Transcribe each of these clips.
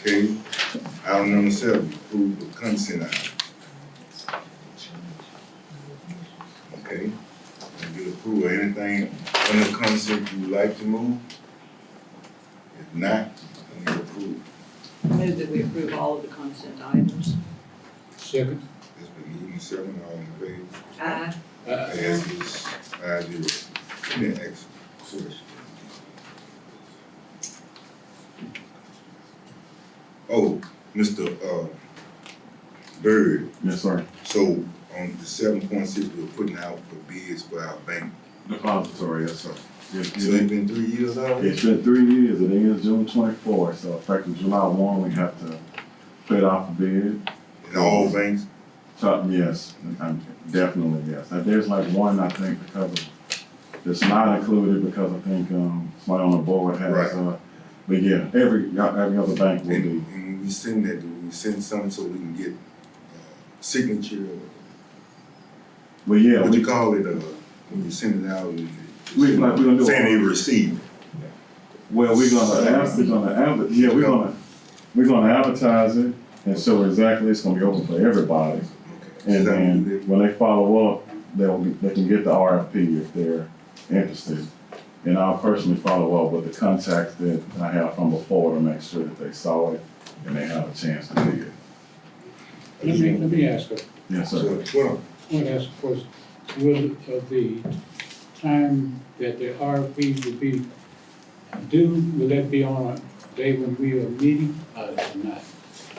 Okay, item number seven, approve the consent item. Okay, if you approve anything under consent you would like to move? If not, I need approval. Move that we approve all of the consent items. Second. It's been moved and seconded, all in favor? Aye. Uh, Passes five zero. Let me ask a question. Oh, Mr. Uh, Bird, Yes, sir. so on the seven point six, we're putting out for bids for our bank. Depository, yes, sir. Yes, So yes. it's been three years already? It's been three years, it ends June twenty-four, so effective July one, we have to put it out for bid. And all banks, So, yes, I'm, definitely, yes. Now, there's like one, I think, because of, it's not included because I think, um, somebody on the Right. board has, uh, but yeah, every, every other bank will and, be. and when we send that, do we send some so we can get uh, signature? But yeah, What you we, call it, uh, when you send it out? and- We- like, we gonna do a- Saying they received. well, we're gonna, ad- we're gonna adver, yeah, we're gonna, we're gonna advertise it. And so exactly, it's gonna be open for everybody. Okay. And Is that what you then did? when they follow up, they'll be, they can get the RFP if they're interested. And I'll personally follow up with the contacts that I have from before to make sure that they saw it and they have a chance to see it. Let me, let me ask a, Yes, sir. So twelve. I want to ask a question. Will, uh, the time that the RFP will be due, will that be on a day when we are meeting or not?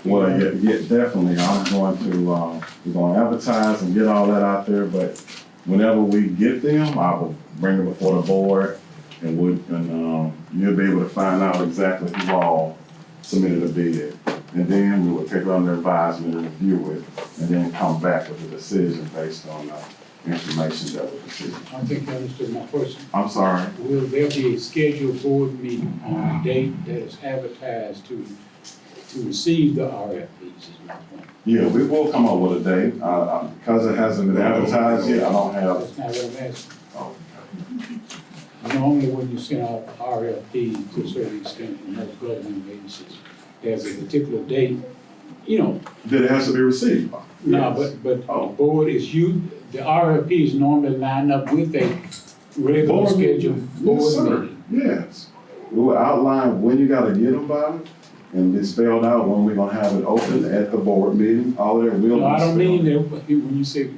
Well, yeah, yeah, definitely. I'm going to, um, we're gonna advertise and get all that out there, but whenever we get them, I will bring them before the board and we, and, um, you'll be able to find out exactly who all submitted a bid. And then we will take it under advisement and review it, and then come back with a decision based on the information that we received. I don't think you understood my question. I'm sorry, Will there be a scheduled board meeting on a date that is advertised to, to receive the RFPs is my point? yeah, we will come up with a date, uh, uh, because it hasn't been advertised yet, I don't have. That's not what I'm asking. oh, Normally, when you send out RFP to a certain extent in most government agencies, there's a particular date, you know, That it has to be received. no, Yes. but, but Oh. the board is you, the RFPs normally line up with a regular Board meeting. scheduled Yes, board sir. meeting. Yes. We will outline when you gotta get them by, and it's spelled out when we're gonna have it open at the board meeting, all of that will. No, I be don't mean spelled. that, when you say,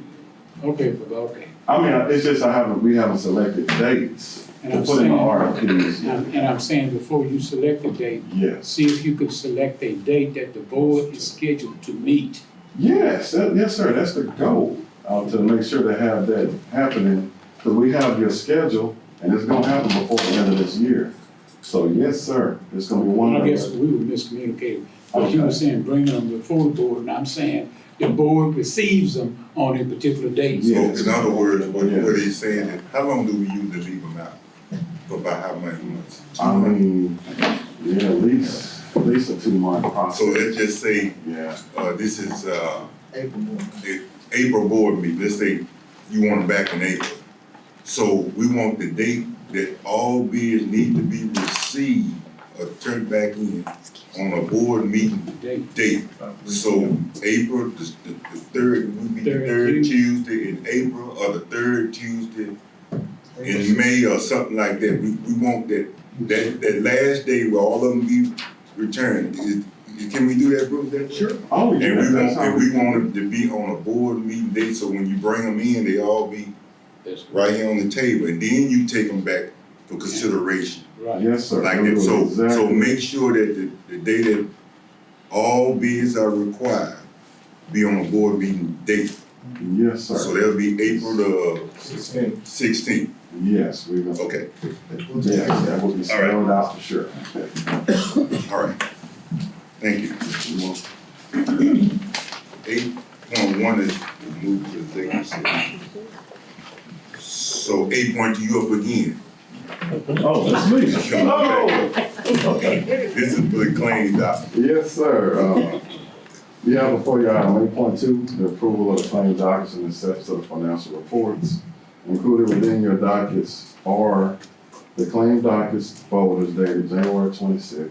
okay, but okay. I mean, it's just I haven't, we haven't selected dates And to I'm put in the saying- RFPs. yet. And and I'm saying before you select a date, Yes, see if you could select a date that the board is scheduled to meet. yes, that- yes, sir, that's the goal, uh, to make sure to have that happening, because we have your schedule, and it's gonna happen before the end of this year. So, yes, sir, it's gonna be one. Well, I of guess the- we were miscommunicating, but you were Okay. saying bring them before the board, and I'm saying the board receives them on a particular date. So Yes. in other words, what, Yes. what he's saying is, how long do we usually leave them out? For about how many months? I mean, yeah, at least, at least a two month So process. let's just say, Yeah, uh, this is, uh, the April board meeting, let's say you want them back in April. So we want the date that all bids need to be received or turned back in on a board meeting Date. date. So April, the, the, the third, would be the Third third Tuesday. Tuesday in April or the third Tuesday in May or something like that. We, we want that, that, that last day where all of them be returned. Is, can we do that, Bruce? That- sure. Oh, yeah. And we want, that's how and we want them to be on a board meeting date, so when you bring them in, they all be That's right here on the table. And then you take them back for consideration Right. Yes, sir. like we that. will So, so exactly- make sure that the, the day that all bids are required be on a board meeting date. Yes, So sir. that'll be April the sixteenth, Yes, we will. okay, Yes, that will be spelled out for sure. all right. Thank you. Eight point one is moved to executive session. So eight point, you up again. Oh, that's me. Come on back. Oh. This is for the claims doc. Yes, sir. Uh, You have before you item eight point two, the approval of the claim dockets and the steps of the financial reports. Included within your dockets are The claim dockets folder's dated January twenty-sixth.